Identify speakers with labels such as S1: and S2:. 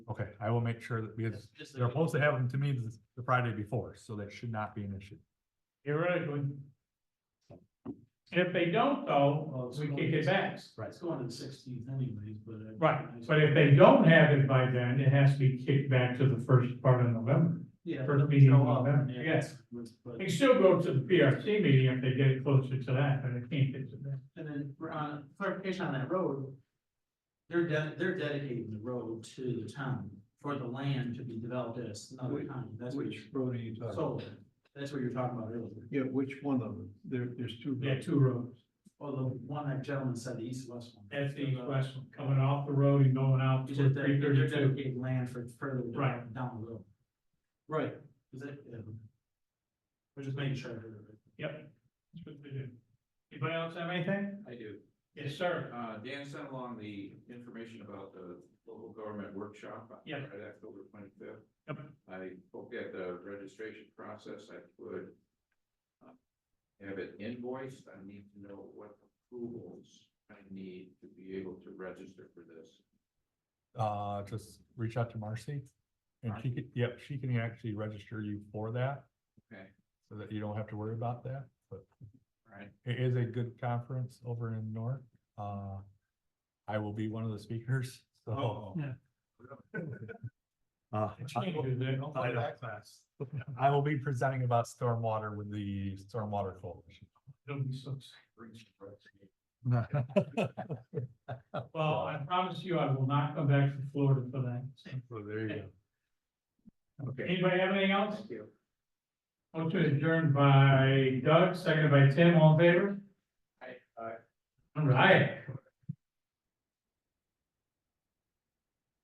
S1: I will make sure that, because
S2: Just-
S1: they're supposed to have them to me the- the Friday before, so that should not be an issue.
S3: theoretically. If they don't though, we kick it back.
S2: It's going to the sixteenth anyways, but. uh, I-
S3: Right, but if they don't have it by then, it has to be kicked back to the first part of November.
S2: Yeah.
S3: first meeting in
S2: show up,
S3: November,
S2: yeah,
S3: yes.
S2: but- but-
S3: They can still go to the PRC meeting if they get it closer to that, but they can't get to that.
S2: And then we're on clarification on that road. They're de- they're dedicating the road to the town for the land to be developed as another
S4: Which-
S2: town. That's what
S4: Which
S2: you
S4: road are you talking? about?
S2: sold. That's what you're talking about earlier.
S4: Yeah, which one of them? There, there's two.
S3: Yeah, two roads.
S2: Well, Oh, the one that gentleman said, the east west one.
S3: That's the east west one, coming off the road and going out
S2: You
S3: to
S2: said that
S3: three
S2: they're
S3: thirty-two.
S2: dedicating land for further
S3: Right.
S2: down down the road.
S4: Right,
S2: Is it? yeah. We're just making sure. I heard it right.
S3: Yep. That's what they do. Anybody else have anything?
S5: I do.
S3: Yes, sir.
S5: Uh, Dan sent along the information about the local government workshop. on
S3: Yeah.
S5: Friday, October twenty-fifth.
S3: Yep.
S5: I hope that the registration process, I could uh, have it invoiced. I need to know what approvals I need to be able to register for this.
S1: Uh, just reach out to Marcy. And she could, yep, she can actually register you for that.
S5: Okay.
S1: So that you don't have to worry about that, but
S5: Right.
S1: it is a good conference over in North. Uh, I will be one of the speakers,
S4: Oh.
S5: Oh.
S1: so.
S3: Yeah.
S1: Uh,
S3: It changes there. Don't
S1: I
S3: play
S1: know.
S3: that class.
S1: I will be presenting about stormwater with the Stormwater Coalition.
S3: It'll be so exciting. Well,
S1: Well,
S3: I promise you, I will not come back from Florida for that. so.
S1: there you go.
S5: Okay,
S3: Anybody have anything else?
S5: thank you.
S3: Motion adjourned by Doug, seconded by Tim, all in favor?
S5: Aye.
S3: All right.